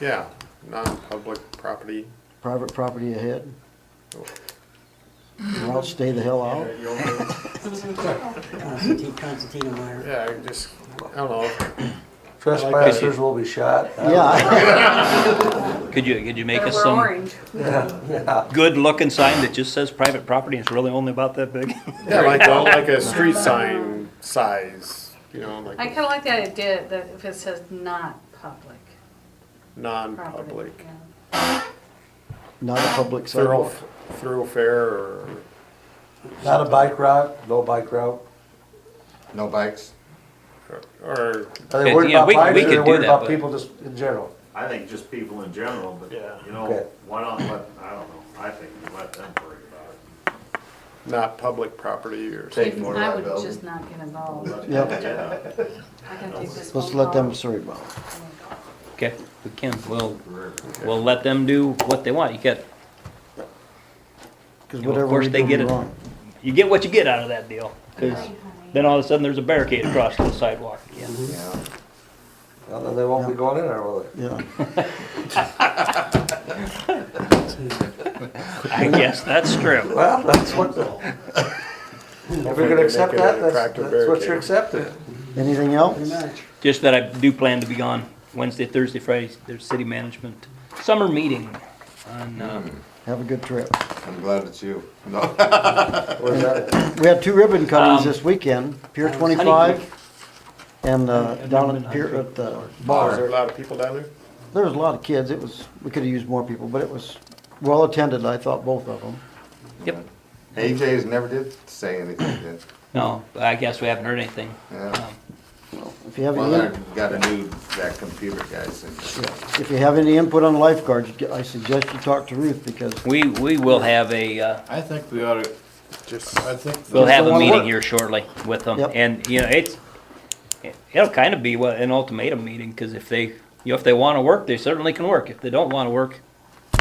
Yeah, non-public property. private property ahead. Or I'll stay the hell out. Constantine, Constantino Meyer. Yeah, I just, I don't know. Trespassers will be shot. Uh, Yeah, Could you, could you make Better us wear some orange. good-looking sign that just says private property and it's really only about that big? Yeah, like, well, like a street sign size, you know, I like kinda like the idea that if it says not public property. non-public yeah. not a public thorough, sidewalk. thoroughfare or, Not a bike route, no bike route. No bikes? or, Are Okay, they worried yeah, about we- bikes we or could they do worried that, about but- people just in general? I think just people in general, but, Yeah. you Okay. know, why not let, I don't know, I think you let them worry about it. not public property or. Take more of I that would building. just not get involved. Yep, Yeah, I can take this let's phone let them call. sort it out. Okay, we can, we'll, we'll let them do what they want. You get, Because Of whatever course we they do get we it. wrong. you get what you get out of that deal. 'Cause then all of a sudden, there's a barricade across the sidewalk again. Yeah. Well, Then they won't be going in there, will they? Yeah, I guess that's true. Well, that's what, if you're gonna accept Make it that, an that's, attractive that's what barricade. you're accepting. anything Pretty else? much. Just that I do plan to be on Wednesday, Thursday, Friday, there's city management summer meeting on, um, Have a good trip. I'm glad it's you. No. Where's that at? We had two ribbon cuttings Um, this weekend, Pier Honey twenty-five and uh, I've down never at Pier, been on at the Is there bar. a lot of people down there? There was a lot of kids. It was, we could have used more people, but it was well attended, I thought, both of them. Yep. AJ's never did say anything, did? no, I guess we haven't heard anything. Yeah. If you have Well, I any, got a new, that computer guy sent me. if you have any input on lifeguards, I suggest you talk to Ruth because We, we will have a, uh, I think we ought to, just, I think. We'll Just have don't a wanna meeting work. here shortly with them, Yep. and, you know, it's, it'll kind of be what, an ultimatum meeting, because if they, you know, if they want to work, they certainly can work, if they don't want to work,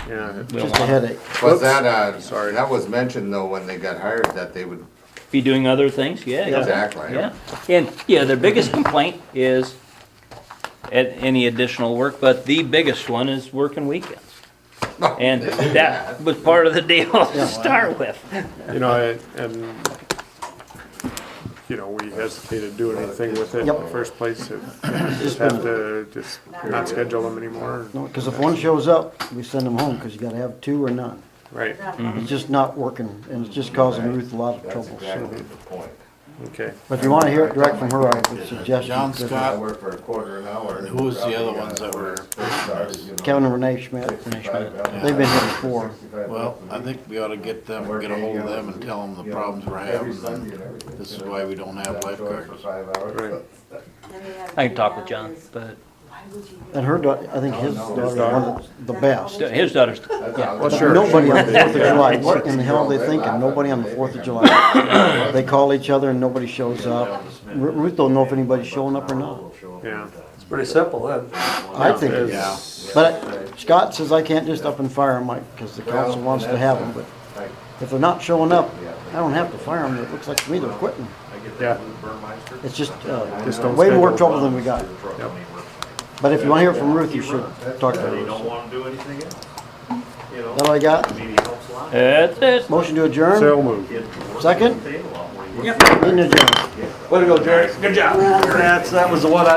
Yeah. we don't just a want headache. Was that, uh, sorry, that was mentioned though when they got hired that they would, to be doing other things, yeah. yeah. exactly. Yeah, and, yeah, their biggest complaint is at any additional work, but the biggest one is working weekends. And that was part of the deal to start with. You know, I- and, you know, we hesitated to do anything with it in the Yep. first place. If- Just have to, just not schedule them anymore. No, because if one shows up, we send them home, because you gotta have two or none. Right, It's just not working, and it's just causing Ruth a lot of Mm-hmm. That's trouble. so. exactly the point. okay. But if you wanna hear it direct from her, I would suggest John you, Scott. I work for a quarter an hour. and Who was the probably other got ones that were- first started, you know, Kevin and Renee Schmidt, 65 they've been here before. 65 Well, I bucks a week. think we ought to get them, get a hold of them and tell them the You know, problems we're every having. Sunday and and everything. This is why we don't have That short lifeguards. For five hours. Right. I can talk with John, but And her daughter, I think his daughter is one of the best. his daughter's, That's yeah. all. Well, sure. Nobody on the Fourth of July, what in the hell are they thinking? Nobody on the Fourth of July. They call each other and nobody shows up. Ru- Ruth don't know if anybody's showing up or not. Yeah. It's pretty simple then. I think it's, but Scott says I can't just up and fire them, like, because the council wants to have them, but Like, If they're not showing up, I don't have to fire them, it looks like to me they're quitting. Yeah. It's just, Just uh, don't way more schedule trouble than we got. Yep. But if you wanna hear from Ruth, you should talk to They her. don't wanna do anything else, you know, That all I got? I mean, it helps a lot. That's it. Motion to adjourn, So moved. It works Second? in the table a lot more. meeting adjourned. Way to go, Jerry. Good job. That's, that was the one I